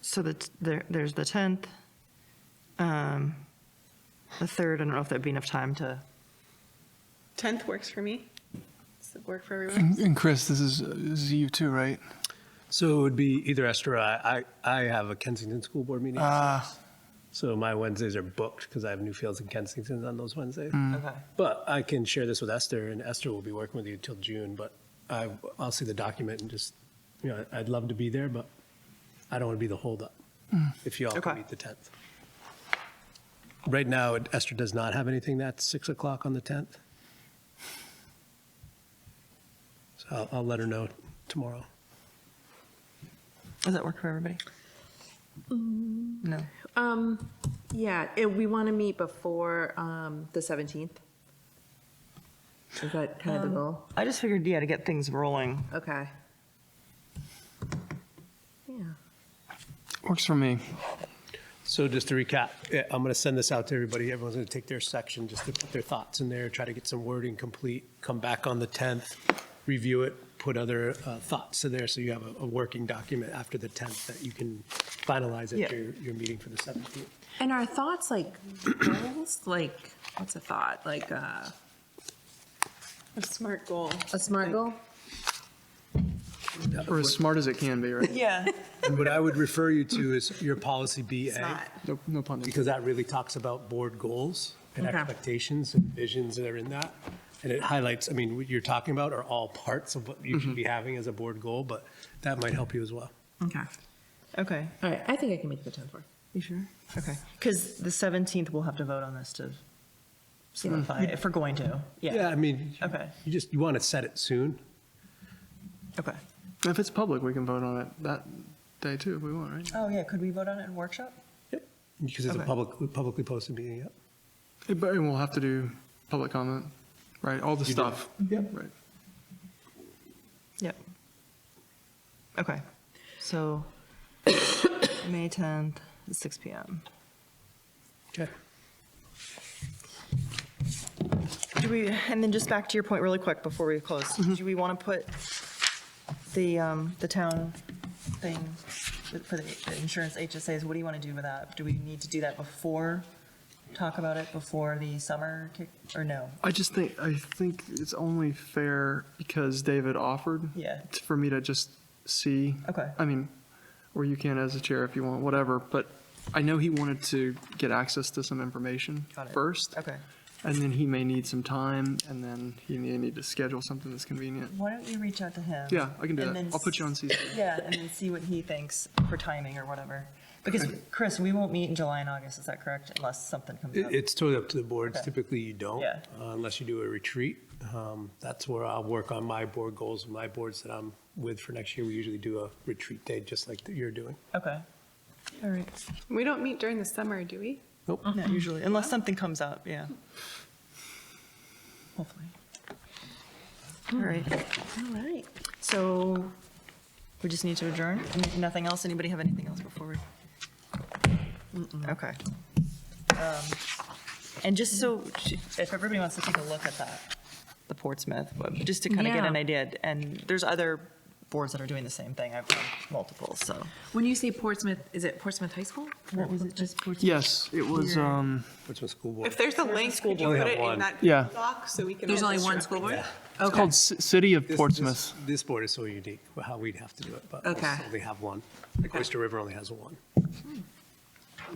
So that's, there, there's the 10th. um, The 3rd, I don't know if that'd be enough time to, 10th works for me. Does it work for everyone? And, and Chris, this is, this is you too, right? So it would be either Esther or I. I, I have a Kensington School Board meeting. Ah. So my Wednesdays are booked because I have Newfields and Kensington on those Wednesdays. But I can share this with Esther and Esther will be working with you till June, but I, I'll see the document and just, you know, I'd love to be there, but I don't want to be the holdup if you all Okay. can meet the 10th. Right now, Esther does not have anything that's 6 o'clock on the 10th. So I'll, I'll let her know tomorrow. does that work for everybody? No. Um, yeah, and we want to meet before, um, the seventeenth. Is that kind of the goal? I just figured, yeah, to get things rolling. Okay. Yeah. Works for me. So just to recap, eh, I'm going to send this out to everybody. Everyone's going to take their section, just to put their thoughts in there, try to get some wording complete, come back on the 10th, review it, put other uh, thoughts to there, so you have a- a working document after the 10th that you can finalize Yeah. at your, your meeting for the 17th. And our thoughts, like goals, like what's a thought, like uh, A smart goal. a smart goal? Or as smart as it can be, right? Yeah. And what I would refer you to is your policy BA, not. No, no pun intended. because that really talks about board goals and Okay. expectations and visions that are in that. And it highlights, I mean, what you're talking about are all parts of what you should be having as a board goal, but that might help you as well. Okay. Okay. All right. I think I can make the tenth work. You sure? Okay. Because the 17th, we'll have to vote on this to solidify it, if we're going to. Yeah, Yeah. Um, I mean, Okay. you just, you want to set it soon. Okay. If it's public, we can vote on it that day too if we want, right? Oh, yeah, could we vote on it in workshop? Yep. Because it's a Okay. public, publicly posted meeting, yep. Eh, But and we'll have to do public comment, right? All the do. stuff. Yep. Right. Yep. Okay. So, May 10th, at 6 PM. Okay. Do we, and then just back to your point really quick before we close, Mm-hmm. do we want to put the, um, the town thing for the the insurance HSAs, what do you want to do with that? Do we need to do that before, talk about it before the summer kick, or no? I just think, I think it's only fair because David offered Yeah. t- for me to just see. Okay. I mean, or you can as a chair if you want, whatever, but I know he wanted to get access to some information Got it. first. Okay. And then he may need some time, and then he may need to schedule something that's convenient. Why don't you reach out to him? Yeah, I can do And that. then I'll put you on s- CC. Yeah, and then see what he thinks for timing or whatever. Because, Chris, we won't meet in July and August, is that correct? Unless something comes up. It- It's totally up to the boards. Okay. Typically, you don't, Yeah. uh, unless you do a retreat. Um, That's where I'll work on my board goals and my boards that I'm with for next year. We usually do a retreat day, just like that you're doing. Okay. All right. We don't meet during the summer, do we? Nope. Not usually, unless something comes up, yeah. Hopefully. All right, All right. so we just need to adjourn? N- Nothing else? Anybody have anything else before we? Okay. Um, And just so, if everybody wants to take a look at that, the Portsmouth, but just to kind of get Yeah. an idea, and there's other boards that are doing the same thing, I've done multiple, so. When you say Portsmouth, is it Portsmouth High School? What was it, just Portsmouth? Yes, it was, um, What's my school board? If there's a link, could you board. put We it have in one. that Yeah. doc so we can? There's all only one just- school board? it's called C- City of This- this- Portsmouth. This board is so unique, how we'd have to do it, but Okay. we only have one. Like Oyster River only has one.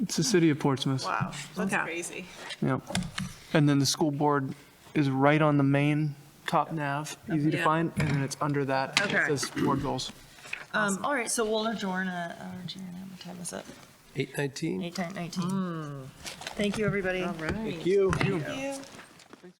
It's the City of Portsmouth. Wow, that's Okay. crazy. Yep. And then the school board is right on the main top nav, easy to Yeah. find, and then it's under that. and Okay. It says board goals. Um, all right, so we'll adjourn, uh, uh, adjourn, I'm gonna time this up. 819? Eight, ten, nineteen. Thank you, everybody. All right. You. Thank you.